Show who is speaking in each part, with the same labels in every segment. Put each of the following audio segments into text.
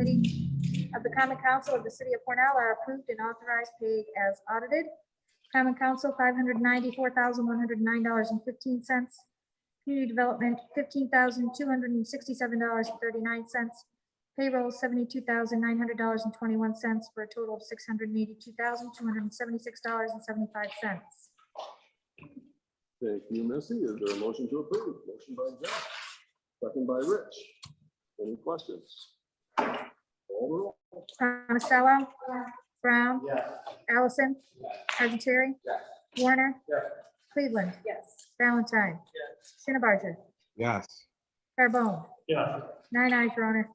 Speaker 1: Committee of the Common Council of the City of Cornell are approved and authorized paid as audited. Common Council, five hundred ninety-four thousand, one hundred nine dollars and fifteen cents. Community Development, fifteen thousand, two hundred and sixty-seven dollars and thirty-nine cents. Payroll, seventy-two thousand, nine hundred dollars and twenty-one cents, for a total of six hundred eighty-two thousand, two hundred and seventy-six dollars and seventy-five cents.
Speaker 2: Thank you, Missy. Is there a motion to approve? Motion by Jeff, second by Rich. Any questions? Call the roll.
Speaker 1: Monticello? Brown?
Speaker 3: Yes.
Speaker 1: Allison? Audetary? Warner?
Speaker 3: Yes.
Speaker 1: Cleveland? Yes. Valentine? Shinnebarger?
Speaker 4: yes,
Speaker 1: Carbone?
Speaker 3: Yes.
Speaker 1: Nine eyes, Your Honor.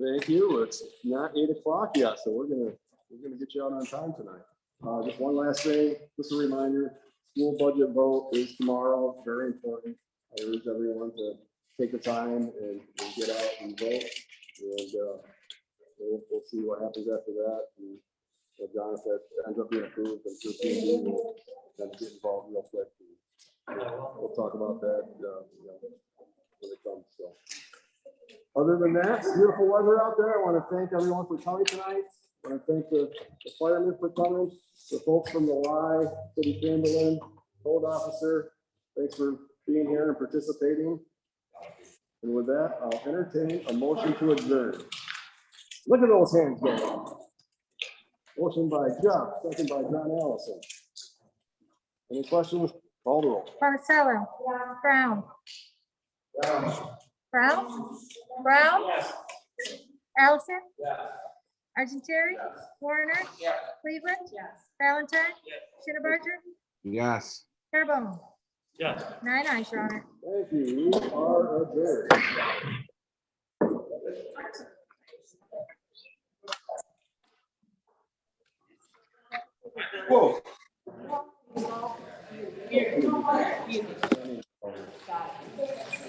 Speaker 2: Thank you. It's not eight o'clock yet, so we're gonna, we're gonna get you out on time tonight. Uh, just one last thing, just a reminder, school budget vote is tomorrow, It's very important. I urge everyone to take the time and, and get out and vote. And, uh, we'll, we'll see what happens after that. And if Jonathan ends up being approved, I'm sure he'll be, we'll kind of get involved real quick. We'll talk about that, uh, you know, when it comes, so. Other than that, it's beautiful weather out there. I want to thank everyone for coming tonight. I want to thank the the firemen for coming, the folks from the Y, City Chamberlain, Hold Officer. Thanks for being here and participating. And with that, I'll entertain a motion to adjourn. Look at those hands going up. Motion by Jeff, second by John Allison. Any questions? Call the roll.
Speaker 1: Monticello? Brown? Brown? Brown? Allison? Argentary? Warner? Cleveland? Valentine? Shinnebarger?
Speaker 4: yes.
Speaker 1: Carbone?
Speaker 3: Yes.
Speaker 1: Nine eyes, Your Honor.
Speaker 2: Thank you. We are adjourned.
Speaker 5: Here, come on.